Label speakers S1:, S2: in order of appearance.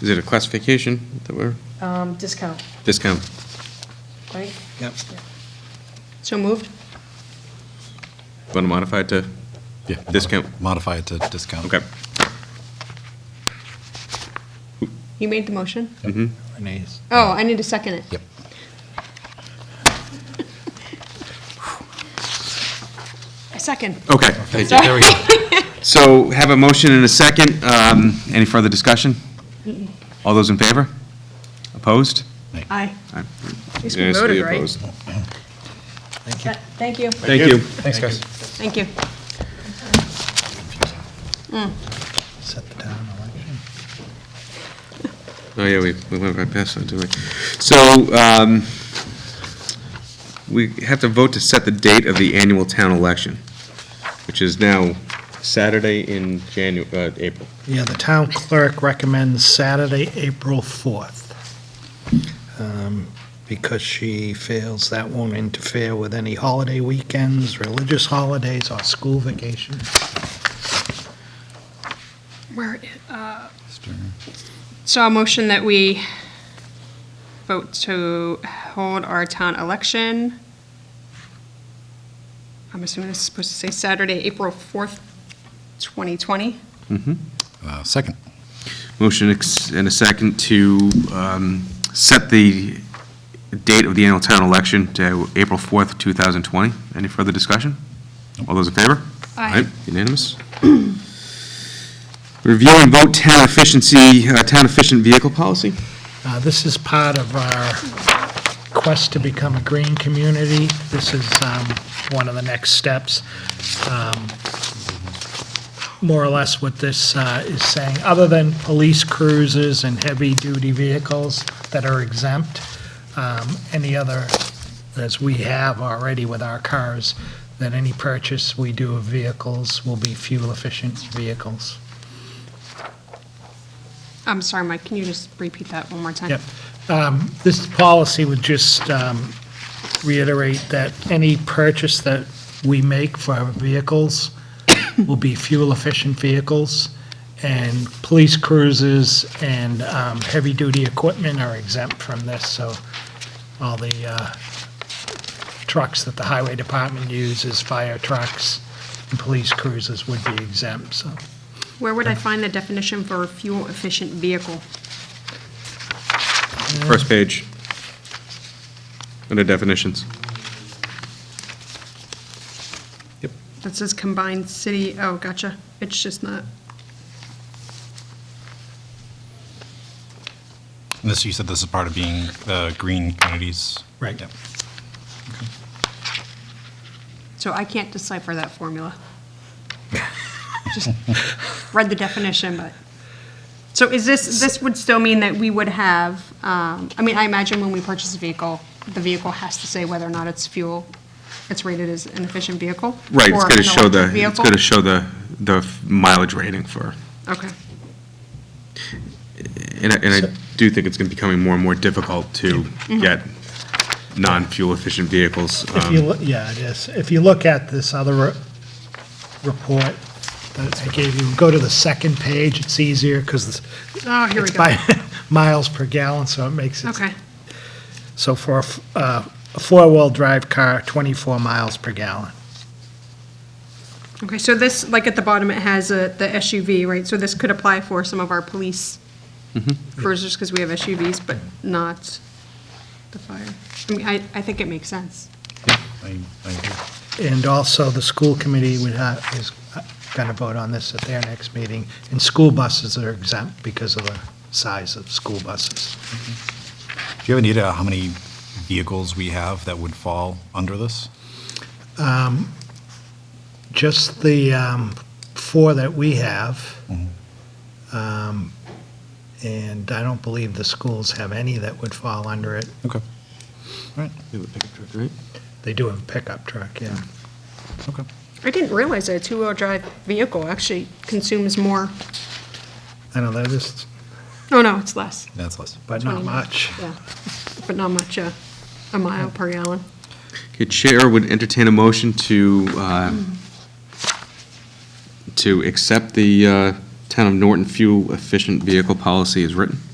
S1: Is it a classification that we're,
S2: Um, discount,
S1: discount?
S2: right?
S3: Yep.
S2: So moved?
S1: Want to modify it to
S4: Yeah.
S1: discount?
S4: Modify it to discount.
S1: Okay.
S5: You made the motion?
S3: Renee's.
S5: Oh, I need to second it.
S4: Yep.
S5: I second.
S1: Okay, thank you.
S4: There we go.
S1: So have a motion and a second. Um, Any further discussion? All those in favor? Opposed?
S5: Aye.
S2: At least we
S1: Unanimously
S2: voted, right?
S1: opposed.
S3: Thank you.
S2: Th- Thank you.
S1: Thank you.
S4: Thanks, guys.
S5: Thank you.
S3: Set the town election.
S1: Oh, yeah, we, we went right past that, didn't we? So, um, we have to vote to set the date of the annual town election, which is now Saturday in Janu, uh, April.
S3: Yeah, the town clerk recommends Saturday, April 4th. Um, Because she feels that won't interfere with any holiday weekends, religious holidays, or school vacations.
S5: Where, uh, so a motion that we vote to hold our town election. I'm assuming this is supposed to say Saturday, April 4th, 2020.
S2: Mm-hmm.
S4: Uh, Second.
S1: Motion ex- and a second to um, set the date of the annual town election to April 4th, 2020. Any further discussion? All those in favor?
S5: Aye.
S1: Aye, Unanimous? Review and vote town efficiency, uh, town efficient vehicle policy?
S3: Uh, This is part of our quest to become a green community. This is um, one of the next steps. Um, More or less what this uh, is saying, other than police cruisers and heavy-duty vehicles that are exempt, um, any other, as we have already with our cars, that any purchase we do of vehicles will be fuel-efficient vehicles.
S5: I'm sorry, Mike, can you just repeat that one more time?
S3: Yep. Um, This policy would just um, reiterate that any purchase that we make for our vehicles will be fuel-efficient vehicles, and police cruisers and um, heavy-duty equipment are exempt from this, so all the uh, trucks that the highway department uses, fire trucks and police cruisers would be exempt, so.
S5: Where would I find the definition for fuel-efficient vehicle?
S1: First page. Under definitions.
S5: That says combined city, oh, gotcha. It's just not,
S4: And this, you said this is part of being the green communities?
S3: Right.
S4: Yep.
S5: so I can't decipher that formula. Just read the definition, but, so is this, this would still mean that we would have, um, I mean, I imagine when we purchase a vehicle, the vehicle has to say whether or not it's fuel, it's rated as an efficient vehicle?
S1: Right, it's
S5: or
S1: going to
S5: an
S1: show the,
S5: electric
S1: it's
S5: vehicle?
S1: going to show the, the mileage rating for,
S5: Okay,
S1: and I, and I do think it's going to be becoming more and more difficult to get non-fuel efficient vehicles.
S3: Mm-hmm. If
S1: um,
S3: you, loo- yeah, it is. If you look at this other re- report that I gave you, go to the second page, it's easier because
S5: oh, here we
S3: it's
S5: go.
S3: by miles per gallon, so it makes it.
S5: Okay,
S3: So for a f- uh, a four-wheel drive car, 24 miles per gallon.
S5: okay, so this, like at the bottom, it has uh, the SUV, right? So this could apply for some of our police cruisers, because we have SUVs, but not the fire. I mean, I, I think it makes sense.
S4: I- I agree.
S3: And also, the school committee would ha is going to vote on this at their next meeting. And school buses are exempt because of the size of school buses.
S4: Do you have any idea how many vehicles we have that would fall under this?
S3: Just the um, four that we have.
S4: Mm-hmm.
S3: Um, And I don't believe the schools have any that would fall under it.
S4: Okay. All right,
S3: They do have a pickup truck, yeah.
S4: okay.
S5: I didn't realize that a two-wheel drive vehicle actually consumes more.
S3: I know, they're just,
S5: Oh, no, it's less,
S4: That's less.
S3: but not much.
S5: yeah, but not much, uh, a mile per gallon.
S1: Okay, Chair would entertain a motion to, uh,
S3: Mm-hmm.
S1: to accept the uh, Town of Norton Fuel Efficient Vehicle Policy as written.